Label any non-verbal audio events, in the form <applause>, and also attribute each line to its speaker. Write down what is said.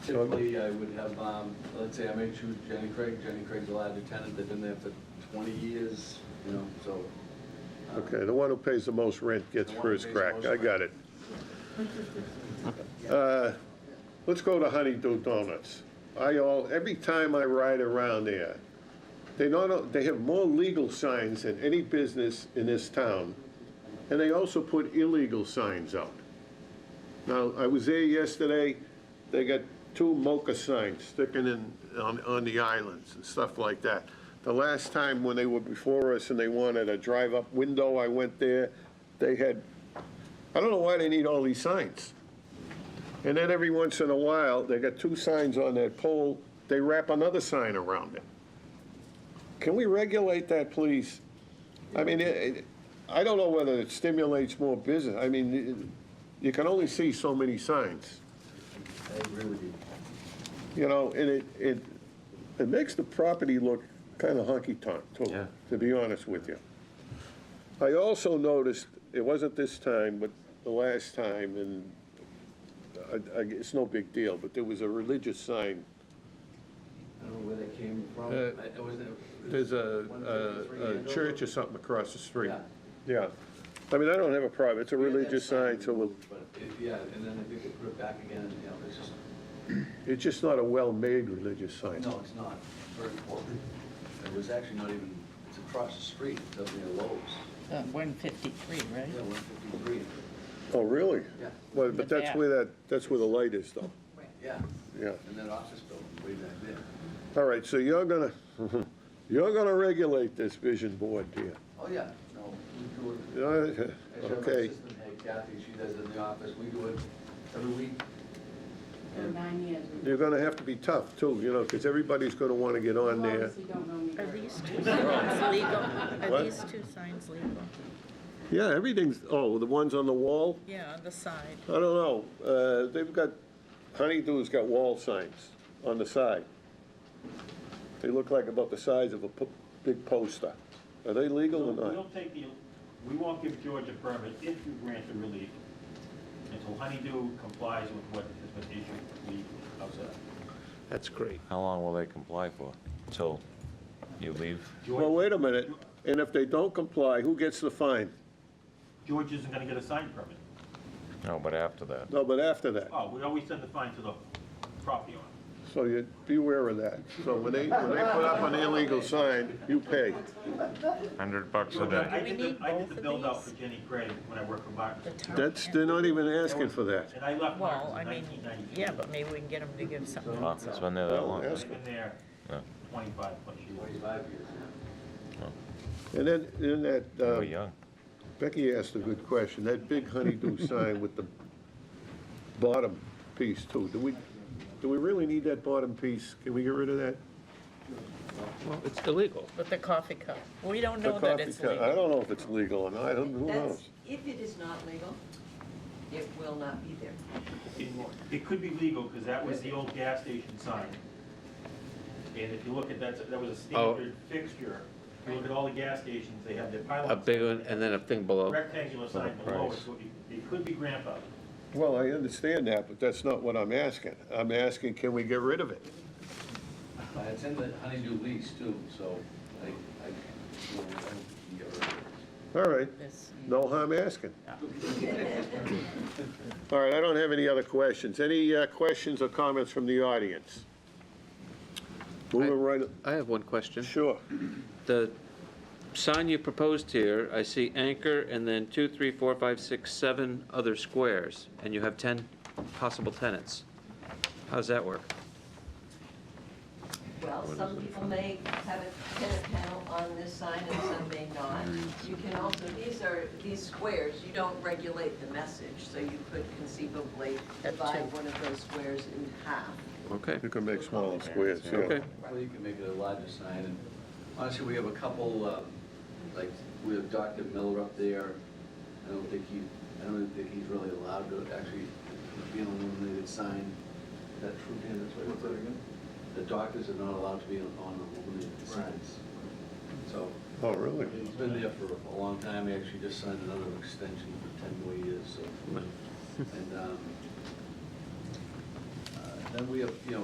Speaker 1: Typically, I would have, um, let's say I may choose Jenny Craig, Jenny Craig's a allowed tenant, they've been there for twenty years, you know, so. uh,
Speaker 2: Okay, the one who pays the most rent gets
Speaker 1: The one who
Speaker 2: first
Speaker 1: pays the
Speaker 2: crack,
Speaker 1: most
Speaker 2: I got it. Uh, Let's go to Honeydew Donuts. I all, every time I ride around there, they not, they have more legal signs than any business in this town, and they also put illegal signs out. Now, I was there yesterday, they got two mocha signs sticking in, on, on the islands and stuff like that. The last time when they were before us and they wanted a drive-up window, I went there, they had, I don't know why they need all these signs. And then every once in a while, they got two signs on that pole, they wrap another sign around it. Can we regulate that, please? I mean, it, it- I don't know whether it stimulates more business, I mean, it- you can only see so many signs,
Speaker 1: I agree with you.
Speaker 2: you know, and it, it, it makes the property look kind of honky-tonk,
Speaker 3: Yeah.
Speaker 2: to, to be honest with you. I also noticed, it wasn't this time, but the last time, and I, I, it's no big deal, but there was a religious sign
Speaker 1: I don't know where that came from.
Speaker 2: Uh,
Speaker 1: I- I wasn't-
Speaker 2: There's
Speaker 1: One
Speaker 2: a,
Speaker 1: fifty-three
Speaker 2: a, a
Speaker 1: Andover?
Speaker 2: church or something across the street.
Speaker 1: Yeah.
Speaker 2: Yeah. I mean, I don't have a problem, it's a religious sign, so we'll-
Speaker 1: But, it- yeah, and then I think they put it back again, you know, it's just,
Speaker 2: it's just not a well-made religious sign.
Speaker 1: no, it's not, It's very important. It was actually not even, it's across the street, it's up near Lowe's.
Speaker 4: Uh, 153, right?
Speaker 1: Yeah, one fifty-three,
Speaker 2: Oh, really?
Speaker 1: Yeah.
Speaker 2: Well, but
Speaker 4: But
Speaker 2: that's
Speaker 4: that-
Speaker 2: where that, that's where the light is though,
Speaker 1: yeah.
Speaker 2: yeah.
Speaker 1: And that office building way back there.
Speaker 2: All right, so you're gonna, <laughs> you're gonna regulate this vision board, dear.
Speaker 1: Oh, yeah, no, we do it.
Speaker 2: Uh,
Speaker 1: Actually, my
Speaker 2: Okay,
Speaker 1: assistant, hey, Kathy, she does it in the office, we do it every week.
Speaker 5: For nine years. and
Speaker 2: you're gonna have to be tough too, you know, because everybody's gonna want to get
Speaker 5: you
Speaker 2: on there.
Speaker 5: obviously don't know me
Speaker 4: Are
Speaker 5: very well.
Speaker 2: What?
Speaker 4: these two signs legal? Are these two signs legal?
Speaker 2: Yeah, everything's, oh, the ones on the wall?
Speaker 4: Yeah, on the side.
Speaker 2: I don't know, uh, they've got, Honeydew's got wall signs on the side. They look like about the size of a po- big poster. Are they legal or
Speaker 6: We'll
Speaker 2: not?
Speaker 6: take the, we won't give George a permit if you grant the relief until Honeydew complies with what has been issued legally. How's that?
Speaker 7: That's great.
Speaker 3: How long will they comply for? Till you leave?
Speaker 2: Well, wait a minute, and if they don't comply, who gets the fine?
Speaker 6: George isn't gonna get a sign permit.
Speaker 3: No, but after that.
Speaker 2: No, but after that,
Speaker 6: Oh, we always send the fine to the property owner.
Speaker 2: so you, beware of that. So when they, when they put up an illegal sign, you pay.
Speaker 3: 100 bucks a
Speaker 6: George, I- I
Speaker 3: day.
Speaker 6: did
Speaker 4: We need
Speaker 6: the, I did
Speaker 4: both
Speaker 6: the
Speaker 4: of
Speaker 6: build out
Speaker 4: these?
Speaker 6: for Jenny Craig when I worked for Martin.
Speaker 4: The top
Speaker 2: That's,
Speaker 4: and-
Speaker 2: they're not even asking for that.
Speaker 6: And I left
Speaker 4: Well, I
Speaker 6: Martin in
Speaker 4: mean,
Speaker 6: nineteen ninety-two.
Speaker 4: yeah, but maybe we can get them to give something.
Speaker 3: Wow, It's been there that long.
Speaker 6: I've been there
Speaker 3: Yeah.
Speaker 6: twenty-five plus years.
Speaker 1: Twenty-five years now.
Speaker 2: And then, then that,
Speaker 3: We're
Speaker 2: uh,
Speaker 3: young.
Speaker 2: Becky asked a good question, that big honeydew sign with the bottom piece too, do we, do we really need that bottom piece? Can we get rid of that?
Speaker 7: Well, it's illegal.
Speaker 4: With the coffee cup. We don't
Speaker 2: The
Speaker 4: know that
Speaker 2: coffee
Speaker 4: it's
Speaker 2: cup- I
Speaker 4: legal.
Speaker 2: don't know if it's legal or not, I don't, who
Speaker 8: That's-
Speaker 2: knows?
Speaker 8: If it is not legal, it will not be there
Speaker 6: It-
Speaker 8: anymore.
Speaker 6: It could be legal, because that was the old gas station sign. And if you look at that, that was a
Speaker 7: Oh.
Speaker 6: standard fixture. If you look at all the gas stations, they have their
Speaker 7: A
Speaker 6: pylons,
Speaker 7: big one and then a thing below.
Speaker 6: rectangular sign
Speaker 3: For the
Speaker 6: below it,
Speaker 3: price.
Speaker 6: so it it could be grandfathered.
Speaker 2: Well, I understand that, but that's not what I'm asking. I'm asking, can we get rid of it?
Speaker 1: I attend the Honeydew lease too, so I, I, you know, I can get rid of it.
Speaker 2: All right,
Speaker 4: This-
Speaker 2: no harm asking. All right, I don't have any other questions. Any uh, questions or comments from the audience? Moving right,
Speaker 7: I have one question.
Speaker 2: sure.
Speaker 7: The sign you proposed here, I see anchor and then two, three, four, five, six, seven other squares, and you have 10 possible tenants. How does that work?
Speaker 8: Well, some people may have a tenant panel on this sign and some may not. You can also, these are, these squares, you don't regulate the message, so you could conceivably
Speaker 4: At
Speaker 8: divide
Speaker 4: two.
Speaker 8: one of those squares in half.
Speaker 7: Okay,
Speaker 2: You can make smaller squares, yeah.
Speaker 7: okay.
Speaker 1: Well, you can make it a larger sign, and honestly, we have a couple, uh, like, we have Dr. Miller up there. I don't think he, I don't think he's really allowed to actually be an illuminated sign. Is that true, Dan? That's what it again? The doctors are not allowed to be on illuminated signs. So,
Speaker 2: Oh, really?
Speaker 1: it's been there for a long time, I actually just signed another extension for ten more years, so. And, um, uh, and we have, you know,